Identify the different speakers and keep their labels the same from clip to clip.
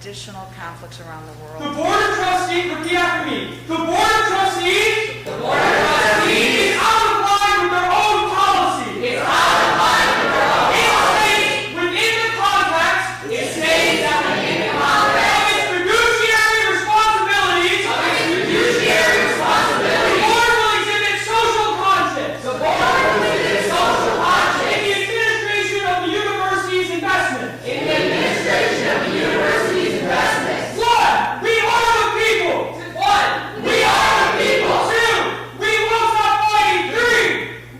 Speaker 1: additional conflicts around the
Speaker 2: The
Speaker 1: world.
Speaker 2: Board of Trustees, repeat after me. The Board of Trustees. The Board of Trustees. Is out of line with their own policy. Is out of line with their own policy. It states within the contracts. It states that within the contracts. Of its fiduciary responsibilities. Of its fiduciary responsibilities. The Board will exhibit social conscience. The Board will exhibit social conscience. In the administration of the university's investments. In the one, we are the people. One, we are the people. Two, we won't stop fighting. Three,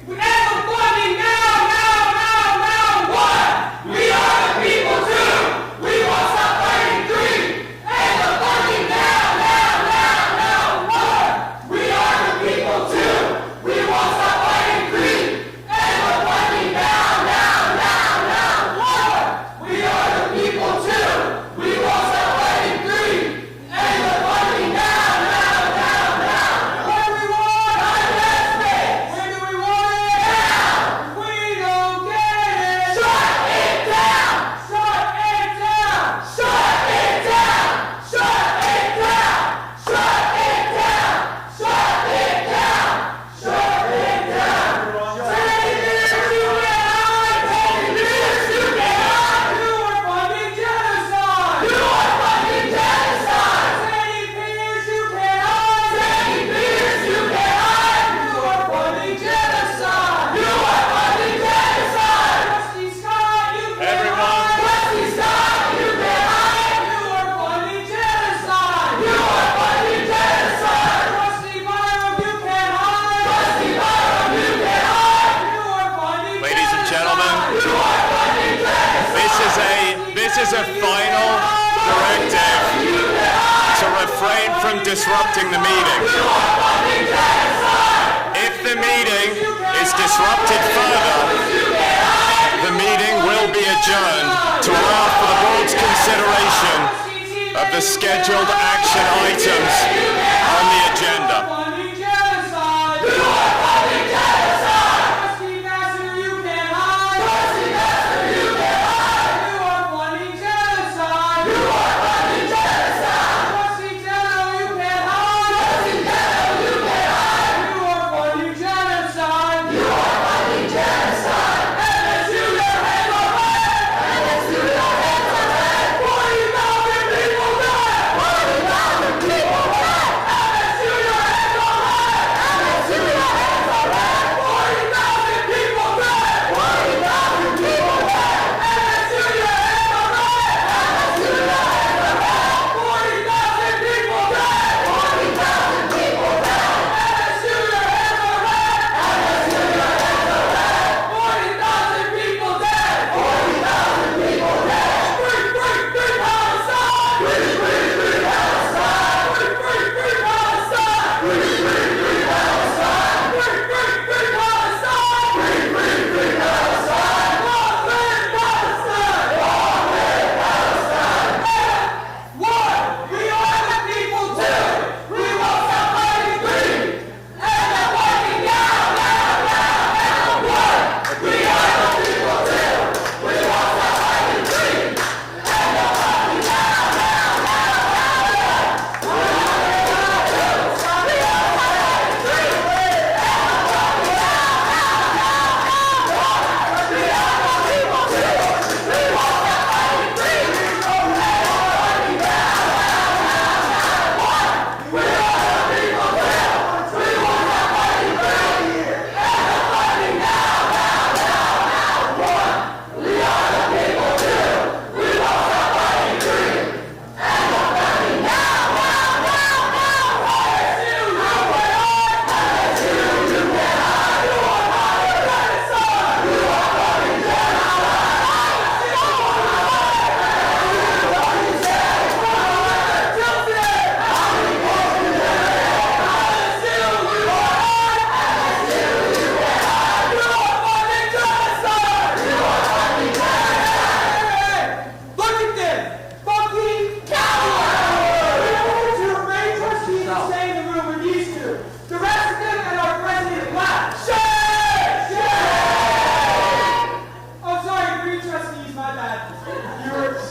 Speaker 2: we have the funding now, now, now, now. One, we are the people. Two, we won't stop fighting. Three, and the funding now, now, now, now. One, we are the people. Two, we won't stop fighting. Three, and the funding now, now, now, now. One, we are the people. Two, we won't stop fighting. Three, and the funding now, now, now, now. What do we want? Investment. When do we want it? Now. We don't get it. Shut it down. Shut it down. Shut it down. Shut it down. Shut it down. Shut it down. Shut it down. Take this unit out. Take this unit out. You are funding genocide. You are funding genocide. Sandy Peters, you cannot. Sandy Peters, you cannot. You are funding genocide. You are funding genocide. Rusty Scott, you cannot.
Speaker 3: Everyone.
Speaker 2: Rusty Scott, you cannot. You are funding genocide. You are funding genocide. Rusty Byron, you cannot. Rusty Byron, you cannot. You are funding
Speaker 3: Ladies and gentlemen, this is a this is a final directive to refrain from disrupting the meeting. If the meeting is disrupted further, the meeting will be adjourned to allow for the board's consideration of the scheduled action items on the agenda.